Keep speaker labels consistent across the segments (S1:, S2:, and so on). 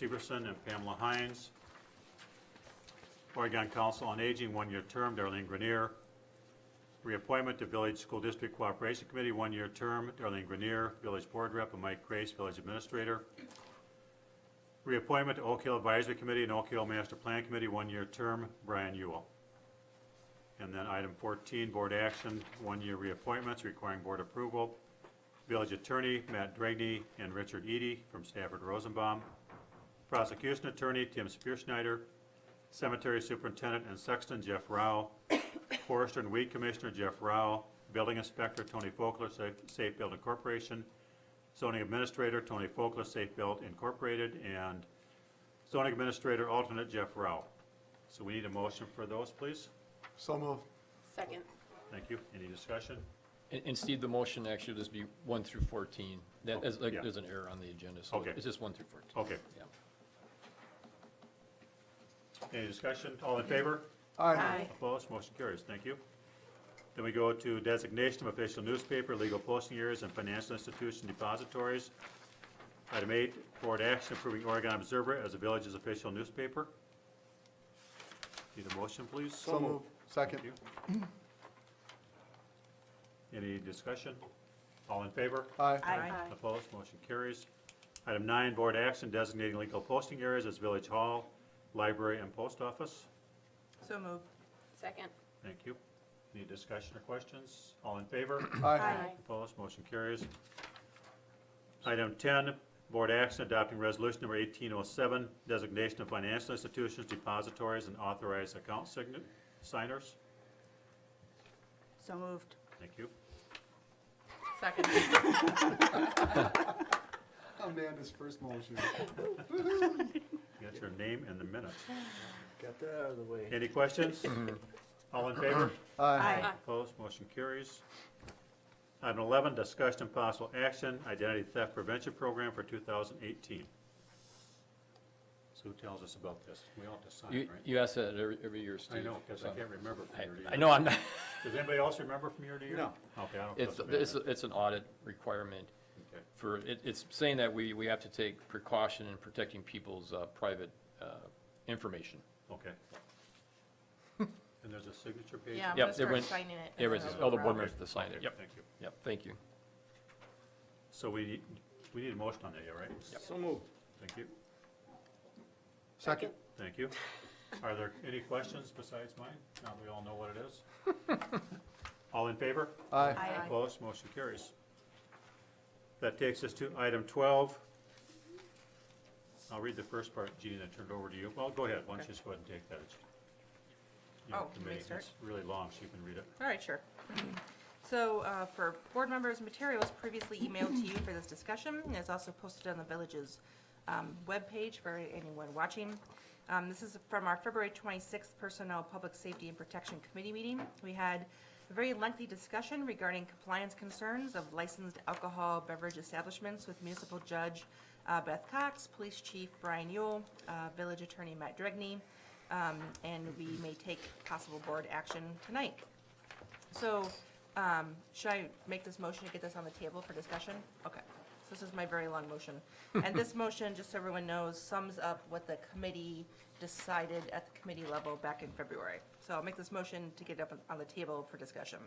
S1: Severson and Pamela Hines. Oregon Council on Aging, one-year term, Darlene Grenier. Reappointment to Village School District Cooperation Committee, one-year term, Darlene Grenier, Village Board Rep, and Mike Grace, Village Administrator. Reappointment to Oak Hill Advisory Committee and Oak Hill Master Plan Committee, one-year term, Brian Ewell. And then item 14, board action, one-year reappointments requiring board approval. Village Attorney Matt Dragney and Richard Eady from Stafford Rosenbaum. Prosecution Attorney Tim Spearschneider. Cemetery Superintendent and Sexton Jeff Rao. Forester and Weed Commissioner Jeff Rao. Building Inspector Tony Fokler, Safe- Safe Building Corporation. Zoning Administrator Tony Fokler, Safe Build Incorporated. And Zoning Administrator Alternate Jeff Rao. So we need a motion for those, please.
S2: So move.
S3: Second.
S1: Thank you. Any discussion?
S4: And, and Steve, the motion actually just be one through fourteen. That is, like,
S1: Yeah.
S4: there's an error on the agenda, so
S1: Okay. Oh.
S4: it's just one through fourteen.
S1: Okay.
S4: Yeah.
S1: Any discussion? All in favor?
S3: Aye.
S1: Opposed? Motion carries. Thank you. Then we go to designation of official newspaper, legal posting areas, and financial institution depositories. Item eight, board action approving Oregon Observer as the village's official newspaper. Need a motion, please?
S2: So move. Second.
S1: Thank you. Any discussion? All in favor?
S2: Aye.
S3: Aye.
S1: Opposed, motion carries. Item nine, board action designating legal posting areas as Village Hall, Library, and Post Office.
S5: So move.
S3: Second.
S1: Thank you. Any discussion or questions? All in favor?
S2: Aye.
S1: Opposed, motion carries. Item 10, board action adopting resolution number 1807, designation of financial institutions, depositories, and authorized account sign- signers.
S5: So moved.
S1: Thank you.
S5: Second.
S2: Amanda's first motion.
S1: Get your name in the minutes.
S2: Got that out of the way.
S1: Any questions? All in favor?
S2: Aye.
S1: Opposed, motion carries. Item 11, discussion and possible action, identity theft prevention program for 2018. So who tells us about this? We all have to sign,
S4: You,
S1: right?
S4: you ask that every, every year, Steve.
S1: I know, because I
S4: so-
S1: can't remember from
S4: I-
S1: year to year.
S4: I know, I'm not,
S1: Does anybody else remember from year to year?
S2: No.
S1: Okay, I don't.
S4: it's,
S1: trust me.
S4: it's, it's an audit requirement
S1: Okay.
S4: for, it, it's saying that we, we have to take precaution in protecting people's, uh, private, uh, information.
S1: Okay. And there's a signature page?
S5: Yeah,
S4: Yep,
S5: I'm gonna
S4: they
S5: start
S4: went-
S5: signing it.
S4: It was, all the board
S1: Okay.
S4: members to sign it, yep,
S1: Thank you.
S4: yep, thank you.
S1: So we, we need a motion on that, yeah, right?
S2: So move.
S1: Thank you,
S2: Second.
S1: thank you. Are there any questions besides mine? Now we all know what it is. All in favor?
S2: Aye.
S5: Aye.
S1: Opposed, motion carries. That takes us to item 12. I'll read the first part, Gene, and turn it over to you. Well, go ahead, why don't you just go ahead and take that. It's- you know,
S5: Oh,
S1: to
S5: me
S1: me,
S5: start?
S1: It's really long, so you can read it.
S5: All right, sure. So uh, for board members, materials previously emailed to you for this discussion, and it's also posted on the village's um, webpage for anyone watching. Um, This is from our February 26th Personnel, Public Safety and Protection Committee meeting. We had a very lengthy discussion regarding compliance concerns of licensed alcohol beverage establishments with municipal judge uh, Beth Cox, police chief Brian Yule, uh, village attorney Matt Dregney, um, and we may take possible board action tonight. So, um, should I make this motion to get this on the table for discussion? Okay, so this is my very long motion. And this motion, just so everyone knows, sums up what the committee decided at the committee level back in February. So I'll make this motion to get up on the table for discussion.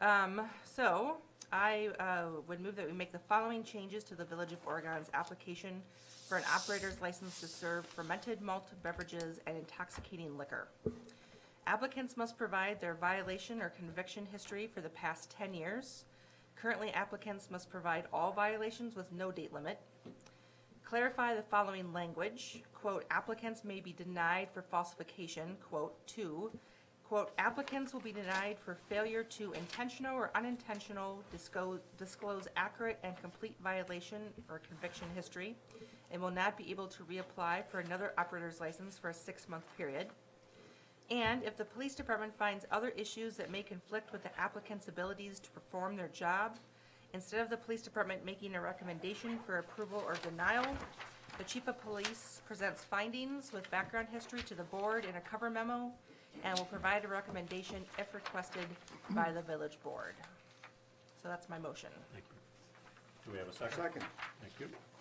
S5: Um, so, I, uh, would move that we make the following changes to the Village of Oregon's application for an operator's license to serve fermented malt beverages and intoxicating liquor. Applicants must provide their violation or conviction history for the past 10 years. Currently, applicants must provide all violations with no date limit. Clarify the following language, quote, applicants may be denied for falsification, quote, two, quote, applicants will be denied for failure to intentional or unintentional disclose, disclose accurate and complete violation or conviction history, and will not be able to reapply for another operator's license for a six-month period. And if the police department finds other issues that may conflict with the applicant's abilities to perform their job, instead of the police department making a recommendation for approval or denial, the chief of police presents findings with background history to the board in a cover memo and will provide a recommendation if requested by the village board. So that's my motion.
S1: Thank you. Do we have a second?
S2: Second.
S1: Thank you.